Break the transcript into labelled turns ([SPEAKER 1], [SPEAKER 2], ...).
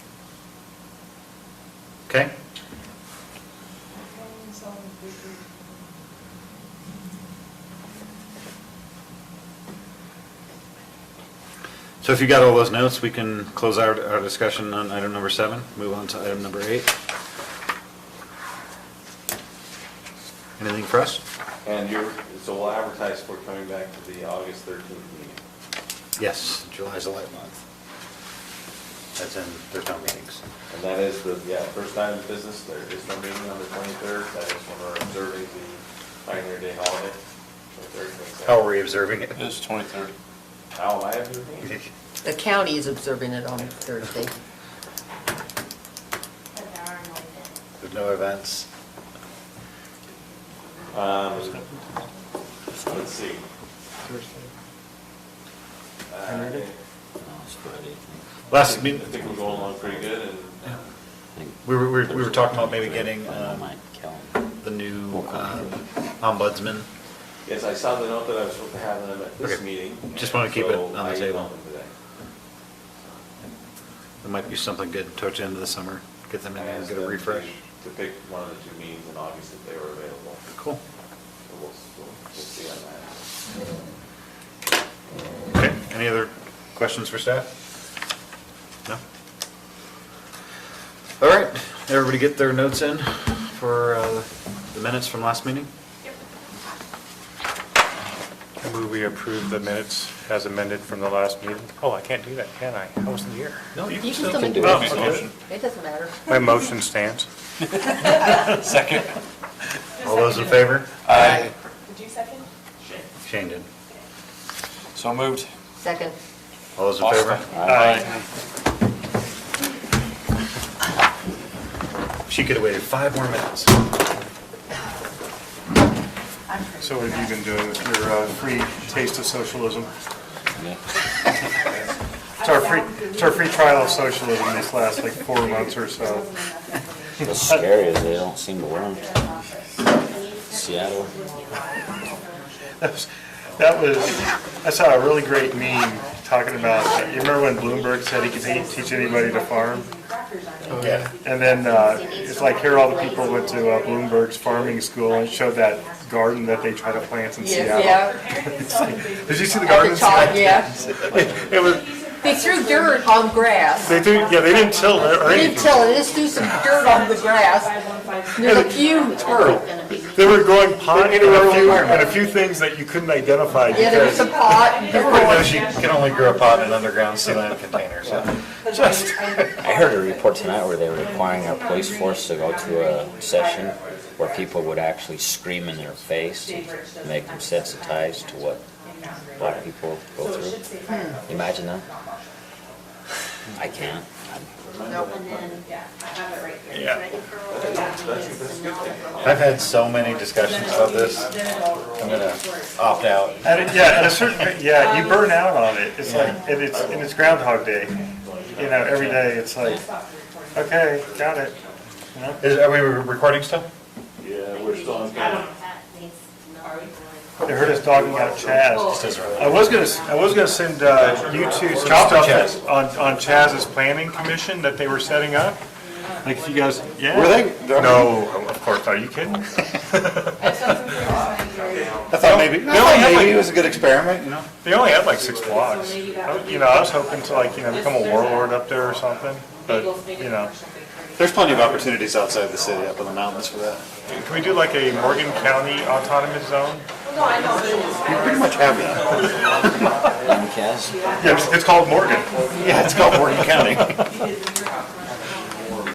[SPEAKER 1] Okay? So if you got all those notes, we can close our, our discussion on item number seven, move on to item number eight. Anything for us?
[SPEAKER 2] And you're, so we'll advertise for coming back to the August 13th meeting.
[SPEAKER 1] Yes, July's a light month. That's in, there's no meetings.
[SPEAKER 2] And that is the, yeah, first time in business, there is no meeting on the 23rd, that is when we're observing the Pioneer Day holiday. 23rd, 22nd.
[SPEAKER 1] How are we observing it?
[SPEAKER 3] It's 23rd.
[SPEAKER 2] How am I observing? it?
[SPEAKER 4] The county is observing it on Thursday.
[SPEAKER 1] There's no events.
[SPEAKER 2] Um, Let's see. Uh,
[SPEAKER 1] Last
[SPEAKER 2] I
[SPEAKER 1] meeting,
[SPEAKER 2] think we're going along pretty good, and
[SPEAKER 1] we were, we were- we were talking about maybe getting um,
[SPEAKER 5] calendar.
[SPEAKER 1] the new um, ombudsman.
[SPEAKER 2] yes, I saw the note that I was supposed to have them at this
[SPEAKER 1] Okay.
[SPEAKER 2] meeting.
[SPEAKER 1] Just wanna keep it
[SPEAKER 2] so
[SPEAKER 1] on the
[SPEAKER 2] I emailed
[SPEAKER 1] table.
[SPEAKER 2] them today.
[SPEAKER 1] There might be something good towards the end of the summer. Get them in
[SPEAKER 2] I
[SPEAKER 1] there and
[SPEAKER 2] asked
[SPEAKER 1] get a
[SPEAKER 2] them to-
[SPEAKER 1] refresh.
[SPEAKER 2] To pick one of the two meetings in August if they were available.
[SPEAKER 1] Cool.
[SPEAKER 2] So we'll, we'll we'll see on that.
[SPEAKER 1] Okay, any other questions for staff? No? All right, everybody get their notes in for uh, the minutes from last meeting?
[SPEAKER 6] I move we approve the minutes as amended from the last meeting. Oh, I can't do that, can I? I wasn't here.
[SPEAKER 1] No, you
[SPEAKER 4] You can still make
[SPEAKER 5] do
[SPEAKER 4] the
[SPEAKER 5] it.
[SPEAKER 1] Oh,
[SPEAKER 4] motion.
[SPEAKER 3] Motion.
[SPEAKER 4] It doesn't matter.
[SPEAKER 6] My motion stands.
[SPEAKER 3] Second.
[SPEAKER 1] All those in favor?
[SPEAKER 3] Aye.
[SPEAKER 7] Did you second?
[SPEAKER 1] Shane did.
[SPEAKER 3] So moved.
[SPEAKER 4] Second.
[SPEAKER 1] All those in favor?
[SPEAKER 3] Austin.
[SPEAKER 6] Aye.
[SPEAKER 1] She could have waited five more minutes.
[SPEAKER 6] So what have you been doing with your uh, free taste of socialism? It's our free, it's our free trial of socialism this last like four months or so.
[SPEAKER 5] What's scary is they don't seem to learn. Seattle.
[SPEAKER 6] That was- That was, I saw a really great meme talking about, you remember when Bloomberg said he could te- teach anybody to farm?
[SPEAKER 1] Yeah.
[SPEAKER 6] And then uh, it's like here all the people went to uh, Bloomberg's farming school and showed that garden that they try to plant in Seattle. Did you see the garden in Seattle?
[SPEAKER 4] yeah.
[SPEAKER 6] It was,
[SPEAKER 4] They threw dirt on grass.
[SPEAKER 6] they didn't, yeah, they didn't till it or
[SPEAKER 4] They didn't
[SPEAKER 6] anything.
[SPEAKER 4] tell it, they just threw some dirt on the grass. There's a few turtles.
[SPEAKER 6] They were growing pot and a few, and a few things that you couldn't identify
[SPEAKER 4] Yeah, there was
[SPEAKER 6] because
[SPEAKER 4] a pot. There
[SPEAKER 1] Everybody
[SPEAKER 4] were-
[SPEAKER 1] knows she can only grow a pot in underground cement containers, huh?
[SPEAKER 6] just,
[SPEAKER 5] I heard a report tonight where they were requiring our police force to go to a session where people would actually scream in their face, to make them sensitized to what black people go through. Hmm. Imagine that. I can't. I'm-
[SPEAKER 6] yeah.
[SPEAKER 1] I've had so many discussions about this. I'm gonna
[SPEAKER 5] Ah.
[SPEAKER 1] opt out.
[SPEAKER 6] At a, yeah, at a certain, yeah,
[SPEAKER 4] Um,
[SPEAKER 6] you burn out on it. It's like, and it's, and it's Groundhog Day. You know, every day it's like, okay, got it. You know?
[SPEAKER 1] Is, are we recording still?
[SPEAKER 2] Yeah, we're still on.
[SPEAKER 6] They heard us talking about Chaz. I was gonna, s- I was gonna send uh, you two some stuff that- on, on Chaz's planning commission that they were setting up. Like if you guys, yeah.
[SPEAKER 1] Were they?
[SPEAKER 6] No, of course, are you kidding?
[SPEAKER 1] I thought maybe, I thought maybe it was a good experiment, you know?
[SPEAKER 6] They only had like six blocks. I- You know, I was hoping to like, you know, become a warlord up there or something, but, you know.
[SPEAKER 1] There's plenty of opportunities outside the city, up in the mountains for that.
[SPEAKER 6] Can we do like a Morgan County autonomous zone?
[SPEAKER 1] You pretty much have that.
[SPEAKER 5] I'm Kaz.
[SPEAKER 6] Yes, it's called Morgan.
[SPEAKER 1] Yeah, it's called Morgan County.